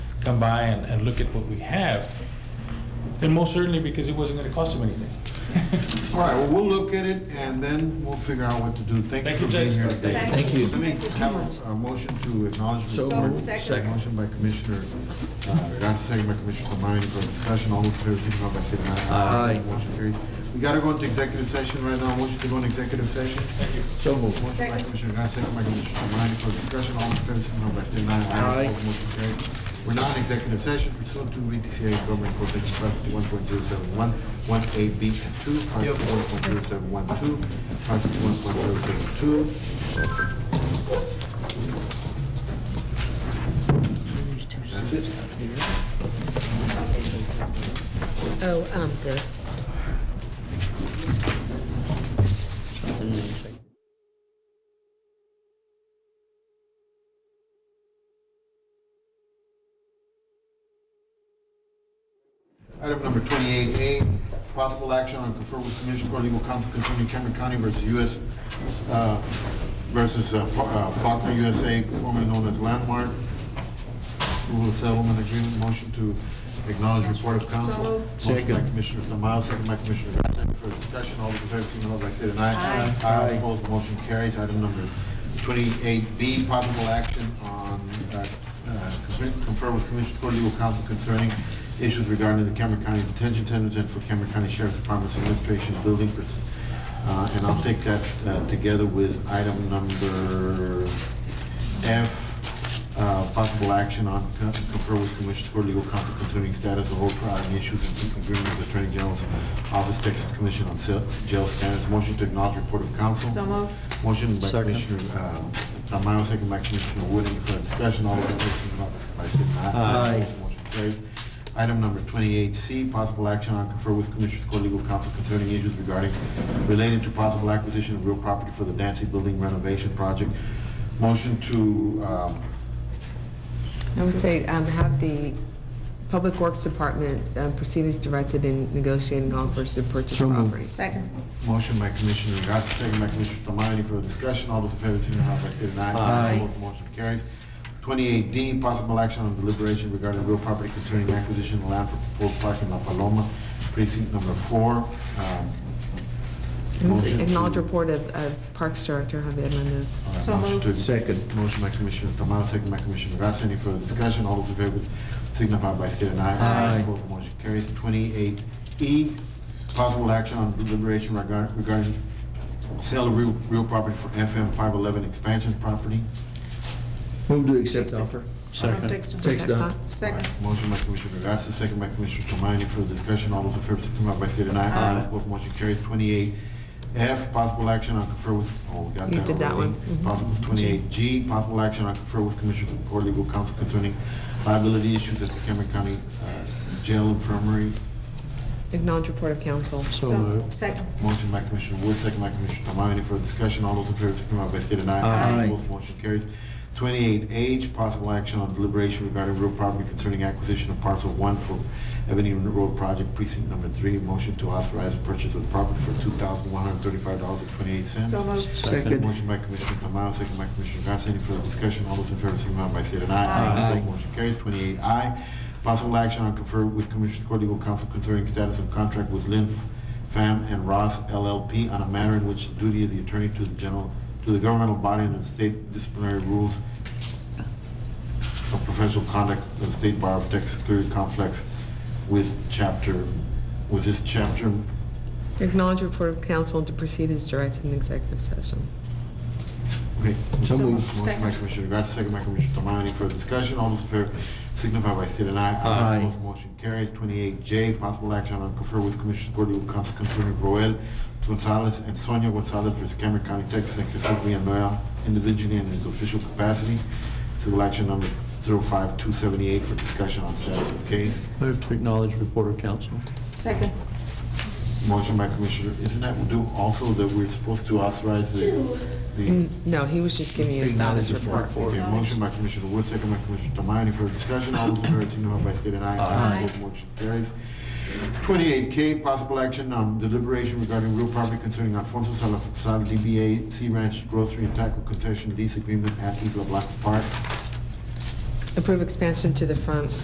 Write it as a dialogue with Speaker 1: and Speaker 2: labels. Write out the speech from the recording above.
Speaker 1: come by and, and look at what we have. And most certainly because it wasn't gonna cost them anything.
Speaker 2: All right, well, we'll look at it, and then we'll figure out what to do. Thank you
Speaker 1: Thank
Speaker 2: for
Speaker 1: you,
Speaker 2: being
Speaker 1: Judge.
Speaker 2: here.
Speaker 3: Thank you.
Speaker 2: Let me
Speaker 3: Thank you so much.
Speaker 2: have a- a motion to acknowledge.
Speaker 3: So
Speaker 2: receipt.
Speaker 3: moved.
Speaker 4: Second.
Speaker 2: Motion by Commissioner, uh, got second by Commissioner Tamani for discussion. All those in favor, signify by saying aye.
Speaker 3: Aye.
Speaker 2: Motion carries. We gotta go into executive session right now. Motion to go into executive session.
Speaker 3: So
Speaker 2: Motion
Speaker 3: moved.
Speaker 2: by
Speaker 4: Second.
Speaker 2: Commissioner Gatz, second by Commissioner Tamani for discussion. All those in favor, signify by saying aye.
Speaker 3: Aye.
Speaker 2: Opposed, Motion carries. We're now in executive session pursuant to VDCA Government Code Section five fifty-one point zero seven one, one A, B, and two, five fifty-one point zero seven one two, five fifty-one point zero seven two, That's it.
Speaker 5: Oh, um, this.
Speaker 2: Item number twenty-eight A, possible action on confer with Commissioner Court Legal Counsel concerning Cameron County versus U.S., uh, versus uh, Fa- uh, Faulkner USA, formerly known as Landmark. Rule of settlement agreement, motion to acknowledge report of
Speaker 4: So
Speaker 2: counsel.
Speaker 4: moved.
Speaker 2: Motion by
Speaker 3: Second.
Speaker 2: Commissioner Tamayo, second by Commissioner Garcia. Any further discussion? All those in favor, signify by saying aye.
Speaker 3: Aye.
Speaker 2: Aye. Opposed, motion carries. Item number twenty-eight B, possible action on, uh, uh, confer with Commissioner Court Legal Counsel concerning issues regarding the Cameron County Detention Centers and for Cameron County Sheriff's Department's Administration Building. pers- Uh, and I'll take that, uh, together with item number F, uh, possible action on con- confer with Commissioners Court Legal Counsel concerning status of all prior issues and agreement with Attorney General's Office, Texas Commission on Sel- Jail Standards. Motion to acknowledge report of counsel.
Speaker 4: So moved.
Speaker 2: Motion by
Speaker 3: Second.
Speaker 2: Commissioner uh, Tamayo, second by Commissioner Wood. Any further discussion? All those in favor, signify by saying aye.
Speaker 3: Aye.
Speaker 2: Motion carries. Item number twenty-eight C, possible action on confer with Commissioners Court Legal Counsel concerning issues regarding related to possible acquisition of real property for the Nancy Building renovation project. Motion to, um,
Speaker 6: I would say um, have the Public Works Department uh, proceed as directed in negotiating offers to purchase
Speaker 3: So moved.
Speaker 6: property.
Speaker 4: Second.
Speaker 2: motion by Commissioner Garcia, second by Commissioner Tamayo. Any further discussion? All those in favor, signify by saying aye.
Speaker 3: Aye.
Speaker 2: Opposed, Motion carries. Twenty-eight D, possible action on deliberation regarding real property concerning acquisition of land for proposed park in La Paloma, precinct number four. Um, motion to-
Speaker 6: Acknowledge report of- of Parks Director Javier Mendez.
Speaker 2: All right,
Speaker 4: So
Speaker 2: motion to-
Speaker 4: moved.
Speaker 3: Second.
Speaker 2: Motion by Commissioner Tamayo, second by Commissioner Garcia. Any further discussion? All those in favor signify by state and I.
Speaker 3: Aye.
Speaker 2: Opposed, motion carries. Twenty-eight E, possible action on deliberation regard- regarding sale of real, real property for FM five-eleven expansion property.
Speaker 3: Move to accept offer. Takes the,
Speaker 4: Second.
Speaker 2: Motion by Commissioner Garcia, second by Commissioner Tamayo. Any further discussion? All those in favor signify by state and I.
Speaker 3: Aye.
Speaker 2: Opposed, motion carries. Twenty-eight F, possible action on confer with, oh, we got
Speaker 6: You
Speaker 2: that
Speaker 6: did that
Speaker 2: already.
Speaker 6: one. Mhm.
Speaker 2: Possible twenty-eight G, possible action on confer with Commissioners of Court Legal Counsel concerning liability issues at the Cameron County uh, Jail Infirmary.
Speaker 6: Acknowledge report of council.
Speaker 3: So moved.
Speaker 4: Second.
Speaker 2: Motion by Commissioner Wood, second by Commissioner Tamayo. Any further discussion? All those in favor, signify by state and I.
Speaker 3: Aye.
Speaker 2: Opposed, motion carries. Twenty-eight H, possible action on deliberation regarding real property concerning acquisition of parcel one for Ebony Road Project Precinct Number Three. Motion to authorize the purchase of property for two thousand one hundred thirty-five dollars and twenty-eight cents.
Speaker 4: So moved.
Speaker 3: second.
Speaker 2: Motion by Commissioner Tamayo, second by Commissioner Garcia. Any further discussion? All those in favor, signify by state and I.
Speaker 3: Aye.
Speaker 2: Opposed, Motion carries. Twenty-eight I, possible action on confer with Commissioners Court Legal Counsel concerning status of contract with Lynn Pham and Ross LLP on a matter in which the duty of the attorney to the general, to the governmental body and the state disciplinary rules of professional conduct of the State Bar of Texas clearly conflicts with chapter, with this chapter
Speaker 6: Acknowledge report of council to proceed as directed in executive session.
Speaker 2: Okay.
Speaker 3: So moved.
Speaker 2: Motion by
Speaker 4: Second.
Speaker 2: Commissioner Garcia, second by Commissioner Tamayo. Any further discussion? All those in favor signify by state and I.
Speaker 3: Aye.
Speaker 2: Opposed, motion carries. Twenty-eight J, possible action on confer with Commissioner Court Legal Counsel concerning Roel Gonzalez and Sonia Gonzalez versus Cameron County, Texas, and Jesus Villanueva individually and in his official capacity. Civil action number 05278 for discussion on status of case.
Speaker 3: Move to acknowledge report of council.
Speaker 4: Second.
Speaker 2: Motion by Commissioner, isn't that due also that we're supposed to authorize the- the
Speaker 6: No, he was just giving you a
Speaker 3: Acknowledge
Speaker 6: status
Speaker 3: report.
Speaker 6: report.
Speaker 2: Okay, motion by Commissioner Wood, second by Commissioner Tamayo. Any further discussion? All those in favor signify by state and I.
Speaker 4: Aye.
Speaker 2: Opposed, Motion carries. Twenty-eight K, possible action on deliberation regarding real property concerning Alfonso Salazar, DBA Sea Ranch Grocery and Taco Concession Lease Agreement at Isla Blanca Park.
Speaker 6: Approve expansion to the front